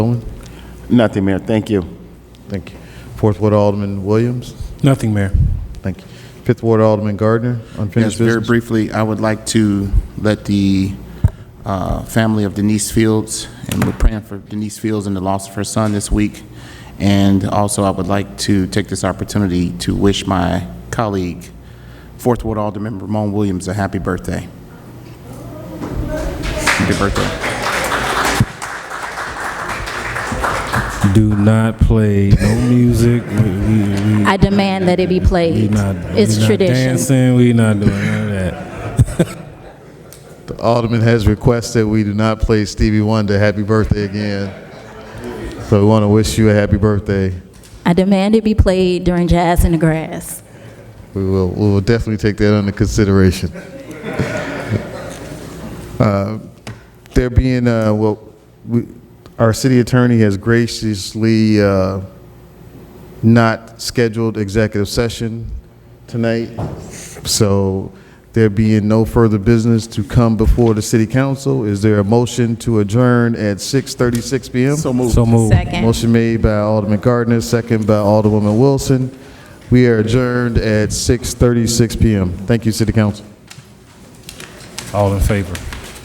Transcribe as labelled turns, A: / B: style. A: Nothing, Mayor. Thank you.
B: Thank you. Fourth Ward Alderman Williams.
C: Nothing, Mayor.
B: Thank you. Fifth Ward Alderman Gardner,
D: Yes,
B: unfinished
D: very
B: business.
D: briefly, I would like to let the uh, family of Denise Fields, and we're praying for Denise Fields and the loss of her son this week. And also, I would like to take this opportunity to wish my colleague, Fourth Ward Alderman Ramon Williams, a happy birthday. Happy birthday.
C: Do not play no music. We, we, we,
E: I demand that it be
C: we
E: played.
C: not,
E: It's
C: we
E: tradition.
C: Not dancing. We not doing none of that.
B: The Alderman has requested we do not play Stevie Wonder, Happy Birthday again. So we want to wish you a happy birthday.
E: I demand it be played during Jazz in the Grass.
B: We will, we will definitely take that under consideration. Uh, There being, uh, well, we, our city attorney has graciously, uh, not scheduled executive session tonight. So there being no further business to come before the city council, is there a motion to adjourn at 6:36 PM?
C: So move.
B: Motion made by Alderman Gardner, second by Alderwoman Wilson. We are adjourned at 6:36 PM. Thank you, City Council.
C: All in favor.